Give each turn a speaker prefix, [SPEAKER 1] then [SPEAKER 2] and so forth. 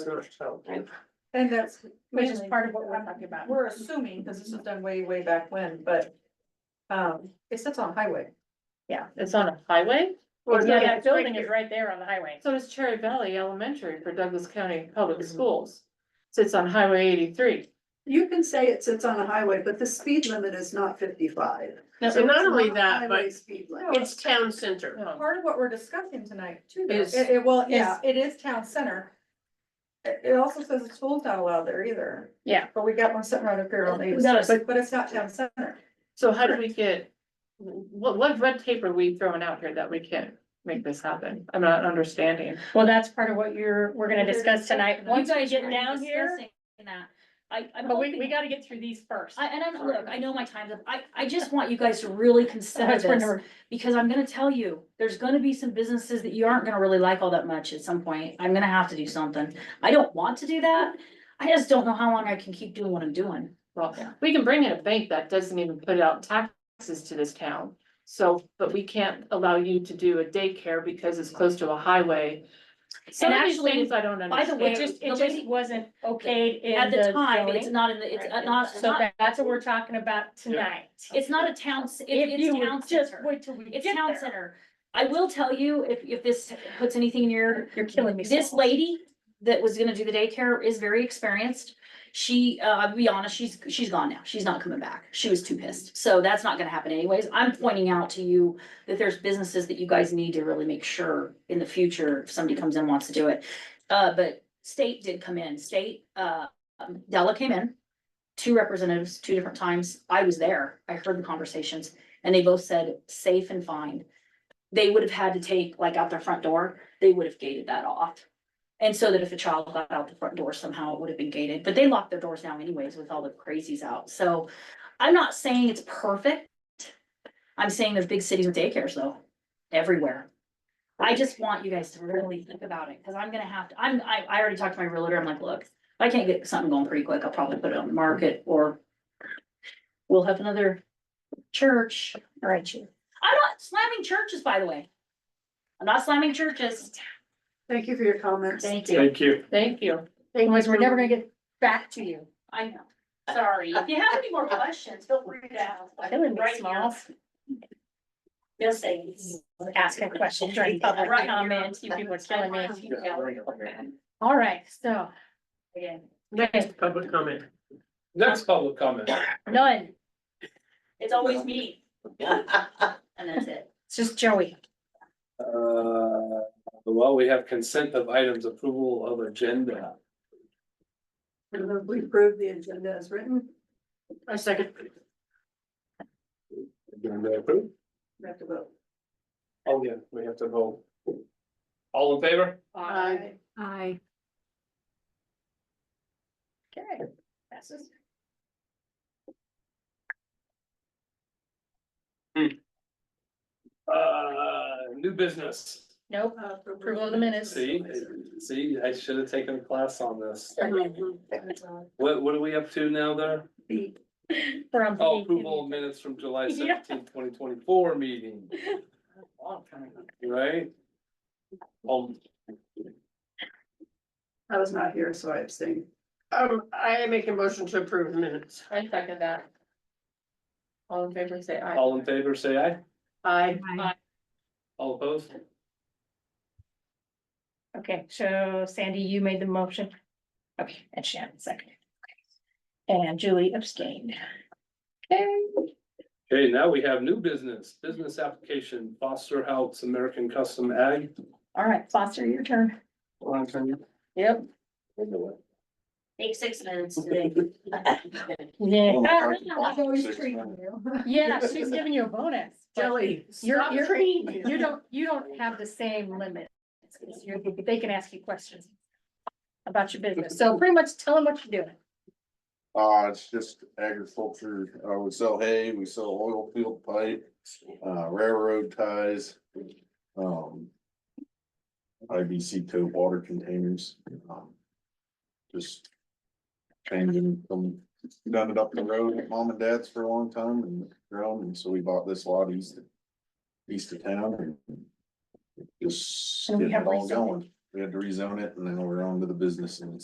[SPEAKER 1] And that's.
[SPEAKER 2] Which is
[SPEAKER 1] mainly-
[SPEAKER 2] part of what we're talking about.
[SPEAKER 1] We're assuming, because this was done way, way back when, but, um, it sits on highway.
[SPEAKER 2] Yeah, it's on a highway?
[SPEAKER 1] Or no,
[SPEAKER 2] Yeah, that
[SPEAKER 1] it's right
[SPEAKER 2] building is
[SPEAKER 1] here.
[SPEAKER 2] right there on the highway. Mm-hmm.
[SPEAKER 3] So does Cherry Valley Elementary for Douglas County Public Schools. Sits on Highway eighty-three.
[SPEAKER 1] You can say it sits on a highway, but the speed limit is not fifty-five.
[SPEAKER 4] And not only
[SPEAKER 1] It's
[SPEAKER 4] that,
[SPEAKER 1] highway
[SPEAKER 4] but
[SPEAKER 1] Speed
[SPEAKER 4] it's
[SPEAKER 1] limit.
[SPEAKER 4] town center.
[SPEAKER 3] Oh.
[SPEAKER 1] Part of what we're discussing tonight too, though,
[SPEAKER 4] Is-
[SPEAKER 1] it, it- well, yeah, it is town center. It, it also says the school's not allowed there either.
[SPEAKER 2] Yeah.
[SPEAKER 1] But we got one sitting right up here on Davis,
[SPEAKER 2] No, it's-
[SPEAKER 1] but, but it's not town center.
[SPEAKER 3] So how do we get, what, what red tape are we throwing out here that we can't make this happen? I'm not understanding.
[SPEAKER 2] Well, that's part of what you're, we're gonna discuss tonight. Once we get
[SPEAKER 5] We're
[SPEAKER 2] down here,
[SPEAKER 5] discussing That, I, I'm
[SPEAKER 2] but we, we
[SPEAKER 5] hoping,
[SPEAKER 2] gotta get through these first.
[SPEAKER 5] I, and I'm, look, I know my time's up, I, I just want you guys to really consider
[SPEAKER 2] That's where
[SPEAKER 5] this.
[SPEAKER 2] number-
[SPEAKER 5] Because I'm gonna tell you, there's gonna be some businesses that you aren't gonna really like all that much at some point, I'm gonna have to do something. I don't want to do that, I just don't know how long I can keep doing what I'm doing.
[SPEAKER 3] Well,
[SPEAKER 5] Yeah.
[SPEAKER 3] we can bring in a bank that doesn't even put out taxes to this town. So, but we can't allow you to do a daycare because it's close to a highway. Some
[SPEAKER 2] And
[SPEAKER 3] of these
[SPEAKER 2] actually,
[SPEAKER 3] things I don't
[SPEAKER 5] by the
[SPEAKER 3] understand.
[SPEAKER 5] way,
[SPEAKER 2] It just,
[SPEAKER 5] the
[SPEAKER 2] it
[SPEAKER 5] lady-
[SPEAKER 2] just wasn't okayed in
[SPEAKER 5] At the time,
[SPEAKER 2] zoning.
[SPEAKER 5] it's not in the, it's not, it's
[SPEAKER 2] So
[SPEAKER 5] not,
[SPEAKER 2] that- that's what we're talking about tonight.
[SPEAKER 5] it's not a town, c- it-
[SPEAKER 2] If you
[SPEAKER 5] it's town
[SPEAKER 2] would just
[SPEAKER 5] center,
[SPEAKER 2] wait till we
[SPEAKER 5] it's
[SPEAKER 2] get
[SPEAKER 5] town
[SPEAKER 2] there.
[SPEAKER 5] center. I will tell you, if, if this puts anything in your,
[SPEAKER 2] You're killing me.
[SPEAKER 5] This
[SPEAKER 2] Saul.
[SPEAKER 5] lady that was gonna do the daycare is very experienced. She, uh, I'll be honest, she's, she's gone now. She's not coming back. She was too pissed. So that's not gonna happen anyways. I'm pointing out to you that there's businesses that you guys need to really make sure in the future, if somebody comes in and wants to do it. Uh, but state did come in, state, uh, um, Della came in, two representatives, two different times. I was there. I heard the conversations and they both said safe and fine. They would have had to take, like out their front door, they would have gated that off. And so that if a child got out the front door somehow, it would have been gated, but they lock their doors now anyways with all the crazies out, so. I'm not saying it's perfect. I'm saying there's big cities with daycares though, everywhere. I just want you guys to really think about it, cause I'm gonna have to, I'm, I, I already talked to my realtor, I'm like, look, if I can't get something going pretty quick, I'll probably put it on the market or. We'll have another church.
[SPEAKER 2] All right, you.
[SPEAKER 5] I'm not slamming churches, by the way. I'm not slamming churches.
[SPEAKER 1] Thank you for your comments.
[SPEAKER 5] Thank you.
[SPEAKER 6] Thank you.
[SPEAKER 3] Thank you.
[SPEAKER 2] Anyways, we're never gonna get back to you.
[SPEAKER 5] I know.
[SPEAKER 2] Sorry.
[SPEAKER 5] If you have any more questions, feel free to ask.
[SPEAKER 2] Killing me, Smalls. You'll say, ask a question during public
[SPEAKER 5] Right.
[SPEAKER 2] comment. You people are killing me. All right, so. Again,
[SPEAKER 4] Next public comment.
[SPEAKER 6] Next public comment. Uh,
[SPEAKER 2] none.
[SPEAKER 5] It's always me. And that's it.
[SPEAKER 2] It's just Joey.
[SPEAKER 6] Uh, well, we have consent of items, approval of agenda.
[SPEAKER 1] We approve the agenda as written.
[SPEAKER 3] Our second.
[SPEAKER 6] Agenda approved?
[SPEAKER 1] We have to vote.
[SPEAKER 6] Oh, yeah, we have to vote. All in favor?
[SPEAKER 3] Aye.
[SPEAKER 2] Aye. Okay, passes.
[SPEAKER 6] Uh, new business.
[SPEAKER 2] Nope.
[SPEAKER 1] Uh, for-
[SPEAKER 2] Approval of the minutes.
[SPEAKER 6] See, see, I should have taken a class on this. What, what are we up to now there?
[SPEAKER 1] B.
[SPEAKER 2] From.
[SPEAKER 6] Oh, approval of minutes from July
[SPEAKER 2] Yeah.
[SPEAKER 6] seventeenth, twenty twenty-four meeting, right? Um,
[SPEAKER 1] I was not here, so I abstained.
[SPEAKER 4] Um, I make a motion to approve minutes.
[SPEAKER 3] I second that. All in favor, say aye.
[SPEAKER 6] all in favor, say aye.
[SPEAKER 3] Aye.
[SPEAKER 6] All opposed?
[SPEAKER 2] Okay, so Sandy, you made the motion. Okay, and Shannon seconded. Okay. And Julie abstained. Okay,
[SPEAKER 6] Okay, now we have new business, business application, Foster House American Custom Ag.
[SPEAKER 2] all right, Foster, your turn. Yep.
[SPEAKER 5] Take six minutes today.
[SPEAKER 2] Yeah.
[SPEAKER 1] always treating you.
[SPEAKER 2] Yeah, she's giving you a bonus. but
[SPEAKER 1] Jelly.
[SPEAKER 2] You're,
[SPEAKER 1] stop
[SPEAKER 2] you're,
[SPEAKER 1] treating me.
[SPEAKER 2] you don't, you don't have the same limit. It's- you're- They can ask you questions about your business. So pretty much tell them what you're doing.
[SPEAKER 7] Uh, it's just agriculture, uh, we sell hay, we sell oil field pipe, uh, railroad ties, um. IBC tow water containers, um. Just. Changing them, done it up the road at mom and dad's for a long time and grown, and so we bought this lot east. East of town and. Just
[SPEAKER 2] And we
[SPEAKER 7] getting
[SPEAKER 2] have
[SPEAKER 7] it all
[SPEAKER 2] rezoned.
[SPEAKER 7] going, we had to rezone it and then we're on to the business and